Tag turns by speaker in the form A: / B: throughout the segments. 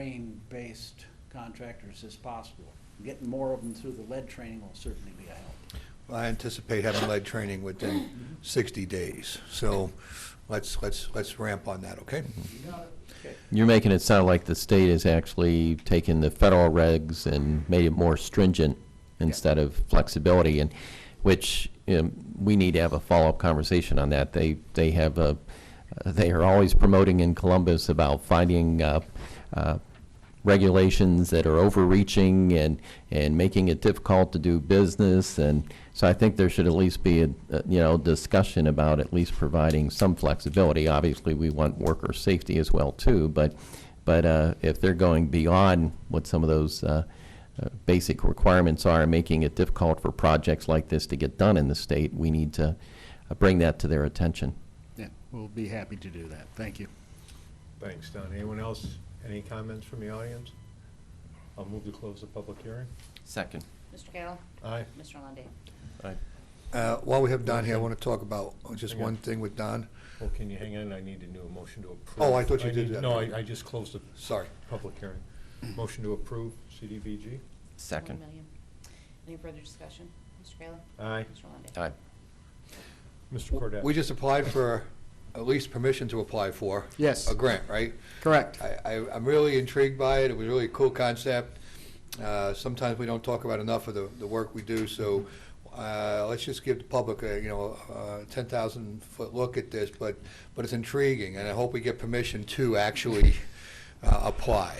A: Lorraine-based contractors as possible. Getting more of them through the lead training will certainly be a help.
B: Well, I anticipate having lead training within 60 days, so let's, let's, let's ramp on that, okay?
C: You're making it sound like the state has actually taken the federal regs and made it more stringent instead of flexibility, and, which, you know, we need to have a follow-up conversation on that. They, they have a, they are always promoting in Columbus about finding, uh, uh, regulations that are overreaching and, and making it difficult to do business, and so I think there should at least be a, a, you know, discussion about at least providing some flexibility. Obviously, we want worker safety as well too, but, but uh, if they're going beyond what some of those uh, uh, basic requirements are, making it difficult for projects like this to get done in the state, we need to uh, bring that to their attention.
A: Yeah, we'll be happy to do that. Thank you.
D: Thanks, Don. Anyone else, any comments from the audience? I'll move to close the public hearing.
C: Second.
E: Mr. Kayla?
D: Aye.
E: Mr. Lundey?
B: Uh, While we have Don here, I want to talk about just
D: Okay.
B: one thing with Don.
D: Well, can you hang on? I need to do a motion to approve.
B: Oh, I thought you did
D: need-
B: that.
D: No, I, I just closed the
B: Sorry.
D: public hearing. Motion to approve CDBG.
C: Second.
E: One million. Any further discussion? Mr. Kayla?
D: Aye.
E: Mr. Lundey?
C: Aye.
D: Mr. Cordell?
B: We just applied for, at least permission to apply for.
A: Yes.
B: A grant, right?
A: Correct.
B: I, I- I'm really intrigued by it. It was really a cool concept. Uh, Sometimes we don't talk about enough of the, the work we do, so uh, let's just give the public, a, you know, a 10,000-foot look at this, but, but it's intriguing, and I hope we get permission to actually uh, apply.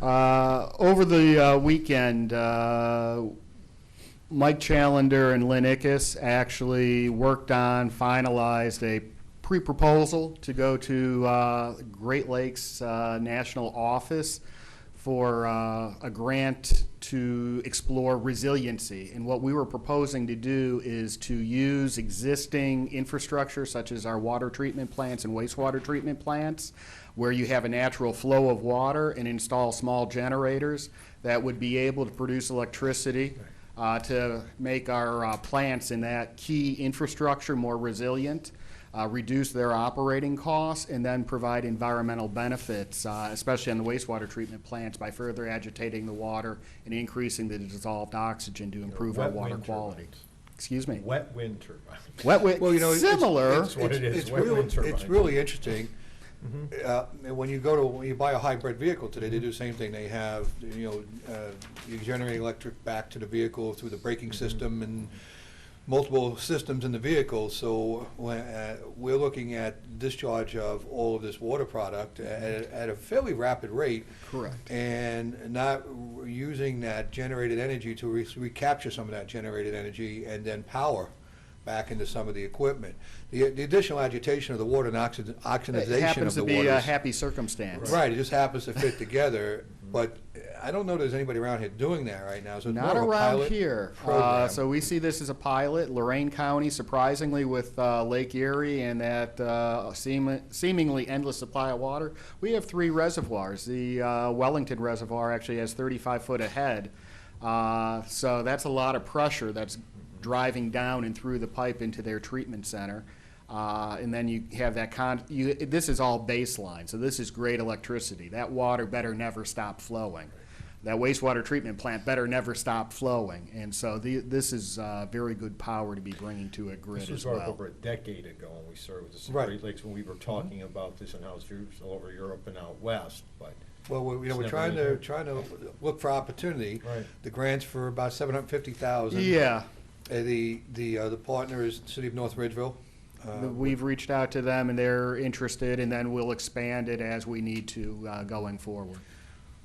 F: Uh, Over the uh, weekend, uh, Mike Challander and Lynn Ickes actually worked on, finalized a pre-proposal to go to uh, Great Lakes uh, National Office for uh, a grant to explore resiliency. And what we were proposing to do is to use existing infrastructure such as our water treatment plants and wastewater treatment plants, where you have a natural flow of water and install small generators that would be able to produce electricity uh, to make our uh, plants in that key infrastructure more resilient, uh, reduce their operating costs, and then provide environmental benefits, uh, especially on the wastewater treatment plants, by further agitating the water and increasing the dissolved oxygen to improve our
D: Wet
F: water
D: wind
F: quality.
D: turbines.
F: Excuse me.
D: Wet wind turbines.
F: Wet, wi-
B: Well, you know, it's-
F: similar.
B: it's-
D: That's what it is,
B: it's
D: wet
B: real-
D: wind
B: It's
D: turbines.
B: really interesting. Uh, and When you go to, when you buy a hybrid vehicle today, they do the same thing. They have, you know, uh, you generate electric back to the vehicle through the braking system and multiple systems in the vehicle. So when, uh, we're looking at discharge of all of this water product at at a fairly rapid rate.
F: Correct.
B: And not r- using that generated energy to re- recapture some of that generated energy and then power back into some of the equipment. The the additional agitation of the water and oxid-
F: It
B: oxidization of
F: happens
B: the
F: to
B: water.
F: be uh, a
B: is-
F: happy circumstance.
B: Right, it just happens to fit together, but I don't know there's anybody around here doing that right now, so it's more
F: Not
B: of a
F: around
B: pilot
F: here. Uh,
B: program.
F: so we see this as a pilot. Lorraine County, surprisingly, with uh, Lake Erie and that uh, seem- seemingly endless supply of water, we have three reservoirs. The uh, Wellington Reservoir actually has 35 foot ahead. Uh, so that's a lot of pressure that's driving down and through the pipe into their treatment center. Uh, and then you have that con, you, this is all baseline, so this is great electricity. That water better never stop flowing. That wastewater treatment plant better never stop flowing. And so the, this is, uh, very good power to be bringing to a
D: This
F: grid as
D: was brought up
F: well. Mm-hmm.
D: over a decade ago when we served this in
B: Right.
D: Great Lakes, when we were talking about this and how it's used all over Europe and out west, but
B: Well, we- you know,
D: It's
B: we're
D: never
B: trying
D: really
B: to,
D: happened.
B: trying to look for opportunity.
D: Right.
B: The grant's for about seven hundred and fifty thousand.
F: Yeah,
B: The, the, uh, the partner is City of North Ridgeville.
D: Uh,
F: the- we've reached out to them and they're interested and then we'll expand it as we need to, uh, going forward.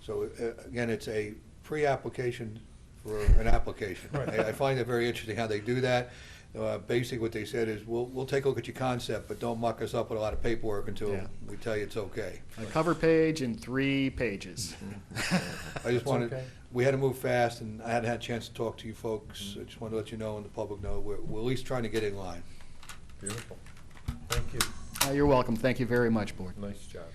B: So, uh, again, it's a pre-application for an application. I I find it very interesting how they do that. Uh, Basically, what they said is, we'll, we'll take a look at your concept, but don't muck us up with a lot of paperwork until
F: Yeah.
B: we tell you it's okay.
F: A cover page and three pages.
D: Mm-hmm.
B: I just
D: That's
B: wanted,
D: okay.
B: we had to move fast, and I hadn't had a chance to talk to you folks. I just wanted to let you know and the public know, we're, we're at least trying to get in line.
D: beautiful. Thank you.
F: Uh, You're welcome. Thank you very much, Board.
D: Nice job.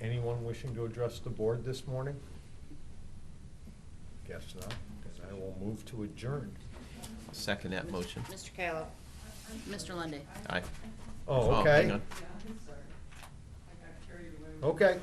D: Anyone wishing to address the board this morning? Guess not, then I will move to adjourn.
C: Second that motion.
E: Mr. Kayla? Mr. Lundey?
C: Aye.
D: Oh,
C: hang
D: okay,
C: on.
D: okay.